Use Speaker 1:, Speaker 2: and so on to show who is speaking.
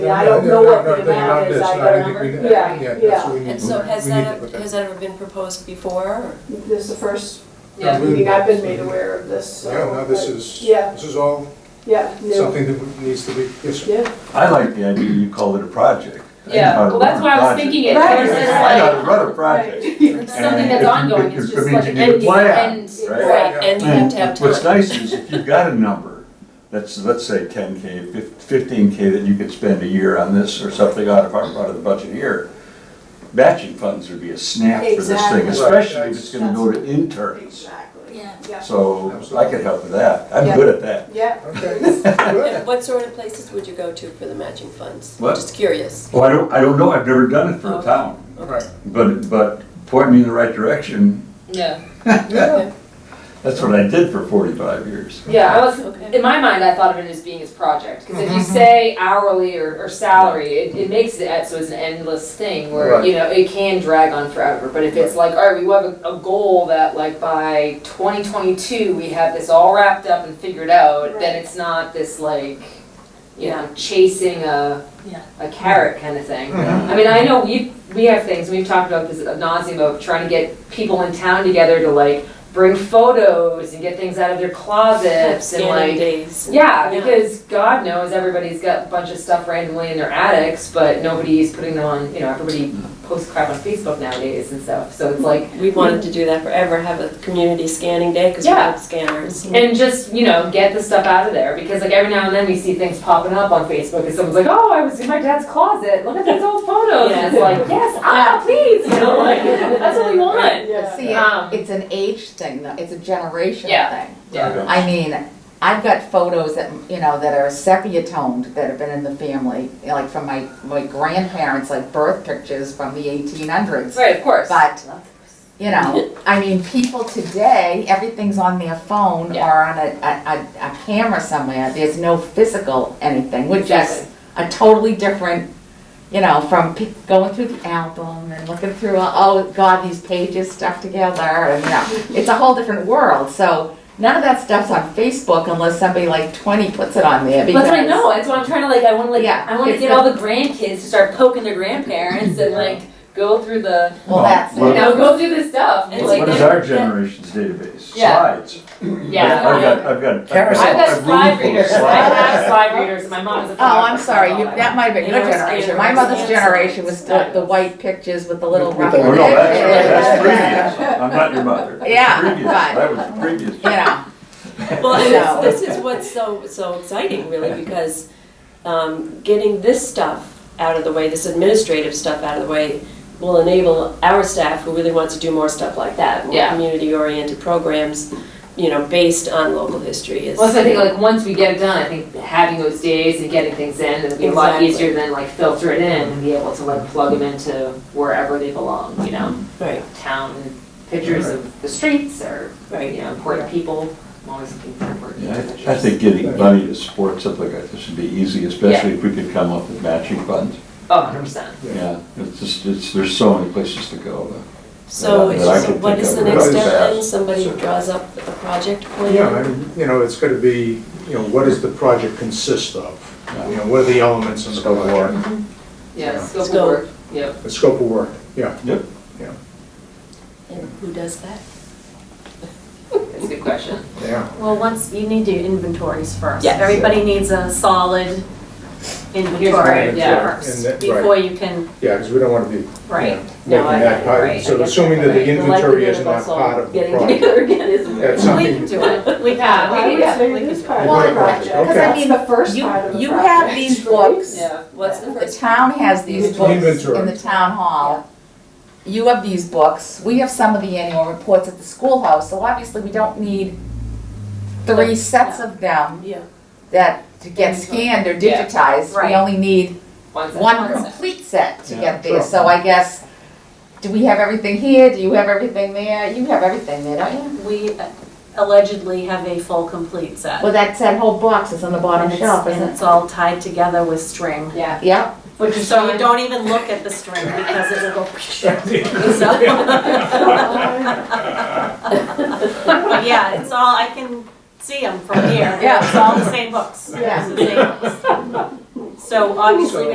Speaker 1: Yeah, I don't know what the amount is, I don't remember. Yeah, yeah.
Speaker 2: And so has that, has that ever been proposed before?
Speaker 1: This is the first
Speaker 3: Yeah.
Speaker 1: meeting I've been made aware of this, so.
Speaker 4: Yeah, no, this
Speaker 1: but-
Speaker 4: is,
Speaker 1: Yeah.
Speaker 4: this is all
Speaker 1: Yeah, no,
Speaker 4: something that needs to be, yes,
Speaker 1: yeah.
Speaker 5: I like the idea you called it a project. I think
Speaker 3: Yeah,
Speaker 5: about
Speaker 3: well,
Speaker 5: it, run a
Speaker 3: that's what I was
Speaker 5: project.
Speaker 3: thinking, it
Speaker 1: Right.
Speaker 3: was just
Speaker 5: I
Speaker 3: like,
Speaker 5: gotta run a project.
Speaker 1: Right.
Speaker 3: it's something
Speaker 5: And
Speaker 3: that's
Speaker 5: if you-
Speaker 3: ongoing,
Speaker 5: if
Speaker 3: it's
Speaker 5: you-
Speaker 3: just
Speaker 5: it means
Speaker 3: like
Speaker 5: you
Speaker 3: an
Speaker 5: need a
Speaker 3: end,
Speaker 5: plan,
Speaker 3: end,
Speaker 5: right?
Speaker 3: right, and you have to have
Speaker 5: And what's
Speaker 3: time.
Speaker 5: nice is if you've got a number, that's, let's say ten K, fifteen K that you could spend a year on this or something out of, out of the budget here, matching funds would be a snap for this
Speaker 1: Exactly.
Speaker 5: thing, especially if it's
Speaker 1: Right.
Speaker 5: gonna go to interns.
Speaker 1: Exactly.
Speaker 3: Yeah.
Speaker 1: Yeah.
Speaker 5: So I could help with that. I'm good at that.
Speaker 1: Yeah.
Speaker 4: okay,
Speaker 2: And
Speaker 4: good.
Speaker 2: what sort of places would you go to for the matching funds?
Speaker 5: What?
Speaker 2: Just curious.
Speaker 5: Well, Oh, I don't, I don't know. I've never done it for a
Speaker 2: Okay.
Speaker 5: town,
Speaker 4: Right.
Speaker 5: but, but point me in the right direction.
Speaker 3: Yeah,
Speaker 4: Yeah,
Speaker 5: That's what I did for forty-five years.
Speaker 3: yeah, I was,
Speaker 2: Okay.
Speaker 3: in my mind, I thought of it as being his project, because if you say hourly or, or salary, it, it makes it, so it's an endless thing where,
Speaker 4: Right.
Speaker 3: you know, it can drag on forever, but if it's like, all right, we have a, a goal that like by twenty twenty-two, we have this all wrapped up and figured out,
Speaker 1: Right.
Speaker 3: then it's not this like, you know, chasing a, a carrot kind of thing.
Speaker 5: Hmm.
Speaker 4: Mhm.
Speaker 3: I mean, I know we, we have things, we've talked about this ad nauseam of trying to get people in town together to like bring photos and get things out of their closets and
Speaker 2: Scanning
Speaker 3: like.
Speaker 2: days.
Speaker 3: Yeah, because God knows everybody's got a bunch of stuff randomly in their attics, but nobody's putting them on, you know, everybody posts crap on Facebook nowadays and stuff, so it's like.
Speaker 2: We wanted to do that forever, have a community scanning day, because we
Speaker 3: Yeah.
Speaker 2: have scanners.
Speaker 3: And just, you know, get the stuff out of there, because like every now and then we see things popping up on Facebook, and someone's like, oh, I was in my dad's closet, look at these old photos, and it's like, yes, ah, please, you know, like, that's what we want.
Speaker 1: Yeah.
Speaker 6: See,
Speaker 3: Um,
Speaker 6: it- it's an age thing, though, it's a generational
Speaker 3: Yeah.
Speaker 6: thing.
Speaker 3: Yeah.
Speaker 6: I mean, I've got photos that, you know, that are sepia toned, that have been in the family, you know, like from my, my grandparents, like birth pictures from the eighteen hundreds.
Speaker 3: Right, of course.
Speaker 6: But, you know, I mean, people today, everything's on their phone
Speaker 3: Yeah.
Speaker 6: or on a, a, a- a camera somewhere, there's no physical anything, which is
Speaker 3: Exactly.
Speaker 6: a totally different, you know, from pe- going through the album and looking through, all- oh, God, these pages stuck together, and, you know, it's a whole different world, so none of that stuff's on Facebook unless somebody like twenty puts it on there, because.
Speaker 3: That's what I know, that's what I'm trying to like, I wanna like,
Speaker 6: Yeah,
Speaker 3: I wanna
Speaker 6: it's
Speaker 3: get
Speaker 6: the-
Speaker 3: all the grandkids to start poking their grandparents and like, go through the,
Speaker 6: Well, that's,
Speaker 3: you
Speaker 5: Well,
Speaker 3: know, go through the stuff, and
Speaker 2: Well,
Speaker 3: like.
Speaker 5: What is our generation's database?
Speaker 3: Yeah.
Speaker 5: Slides.
Speaker 3: Yeah.
Speaker 5: I've got, I've got. I've got
Speaker 7: Carousel.
Speaker 3: I've
Speaker 5: a
Speaker 3: got
Speaker 5: room
Speaker 3: slide
Speaker 5: full of
Speaker 3: readers, I
Speaker 5: slides.
Speaker 3: have slide readers, my mom is a.
Speaker 6: Oh, I'm sorry, you,
Speaker 3: photographer.
Speaker 6: that might have been
Speaker 2: They
Speaker 6: your
Speaker 2: were
Speaker 6: generation,
Speaker 2: scared
Speaker 6: my
Speaker 2: of
Speaker 6: mother's
Speaker 2: us.
Speaker 6: generation was the, the white pictures with the little
Speaker 7: With
Speaker 6: rough.
Speaker 7: the-
Speaker 5: Oh, no, that's, that's
Speaker 6: Yeah.
Speaker 5: previous. I'm not your mother.
Speaker 6: Yeah,
Speaker 5: Previous.
Speaker 6: but-
Speaker 5: That was previous.
Speaker 6: You know,
Speaker 2: Well, and
Speaker 6: No.
Speaker 2: this, this is what's so, so exciting really, because, um, getting this stuff out of the way, this administrative stuff out of the way, will enable our staff who really wants to do more stuff like that, more
Speaker 3: Yeah.
Speaker 2: community-oriented programs, you know, based on local history is.
Speaker 3: Well, so I think like once we get it done, I think having those days and getting things in, it'll be a lot
Speaker 2: Exactly.
Speaker 3: easier than like filter it in and be able to like plug them into wherever they belong, you know?
Speaker 2: Right,
Speaker 3: Town pictures of the streets or, you
Speaker 2: right.
Speaker 3: know, important people, I'm always looking for important
Speaker 5: Yeah,
Speaker 3: pictures.
Speaker 5: I I think getting money to support something like this would be easy, especially if we could come up with matching funds.
Speaker 3: Oh, hundred percent.
Speaker 5: Yeah, it's just, it's, there's so many places to go.
Speaker 2: So,
Speaker 5: That I- that I
Speaker 2: so
Speaker 5: could
Speaker 2: what
Speaker 5: think
Speaker 2: is
Speaker 5: of
Speaker 2: the next
Speaker 4: really
Speaker 2: step then?
Speaker 5: fast.
Speaker 2: Somebody draws up a project plan?
Speaker 4: Yeah, and, you know, it's gonna be, you know, what does the project consist of? You know, what are the elements in the
Speaker 7: Scope of work.
Speaker 4: project?
Speaker 3: Yeah,
Speaker 4: Yeah.
Speaker 3: scope of
Speaker 2: Scope.
Speaker 3: work, yep.
Speaker 4: The scope of work, yeah.
Speaker 2: And who does that?
Speaker 3: That's a good question.
Speaker 4: Yeah.
Speaker 8: Well, once, you need to do inventories first.
Speaker 2: Yes.
Speaker 8: Everybody needs a solid
Speaker 3: Right,
Speaker 8: inventory
Speaker 3: yeah.
Speaker 4: And
Speaker 8: first,
Speaker 4: that-
Speaker 8: before you can,
Speaker 4: Yeah, because we don't wanna be, you
Speaker 8: right.
Speaker 4: know,
Speaker 3: No,
Speaker 4: making
Speaker 3: I-
Speaker 4: that
Speaker 3: right,
Speaker 4: part.
Speaker 3: I
Speaker 4: So
Speaker 3: guess
Speaker 4: assuming that the
Speaker 3: that's right. The
Speaker 4: inventory is
Speaker 2: likelihood of
Speaker 4: not
Speaker 2: us all
Speaker 4: part of the
Speaker 2: Getting
Speaker 4: project.
Speaker 2: together again is.
Speaker 4: That's
Speaker 8: We
Speaker 4: something.
Speaker 8: can do it. We
Speaker 1: I
Speaker 8: have, we
Speaker 1: would
Speaker 8: can do
Speaker 1: say
Speaker 8: it. We
Speaker 1: this
Speaker 8: can-
Speaker 1: part
Speaker 6: Well,
Speaker 1: of the project,
Speaker 4: okay.
Speaker 1: because I mean, the first
Speaker 6: You-
Speaker 1: part of the
Speaker 6: you
Speaker 1: project.
Speaker 6: have these books.
Speaker 3: Yeah.
Speaker 2: What's the
Speaker 6: the
Speaker 2: first?
Speaker 6: town has these books
Speaker 4: Inventory.
Speaker 6: in the town hall. You have these books, we have some of the annual reports at the schoolhouse, so obviously we don't need three sets of them
Speaker 2: Yeah.
Speaker 6: that to get scanned or
Speaker 3: Yeah.
Speaker 6: digitized. We
Speaker 8: Right.
Speaker 6: only need
Speaker 3: One second.
Speaker 6: one complete set to
Speaker 5: Yeah,
Speaker 6: get
Speaker 4: sure.
Speaker 6: there, so I guess, do we have everything here, do you have everything there? You have everything there, don't you?
Speaker 8: We allegedly have a full, complete set.
Speaker 6: Well, that's that whole box is on the bottom
Speaker 8: And it's,
Speaker 6: shelf,
Speaker 8: and
Speaker 6: isn't it?
Speaker 8: it's all tied together with string.
Speaker 3: Yeah.
Speaker 6: Yep,
Speaker 8: Which is, so you don't even look at the string because it will go. Oh, But Yeah, it's all, I can see them from here.
Speaker 6: Yeah.
Speaker 8: It's all the same books.
Speaker 6: Yeah.
Speaker 8: It's the same books. So obviously,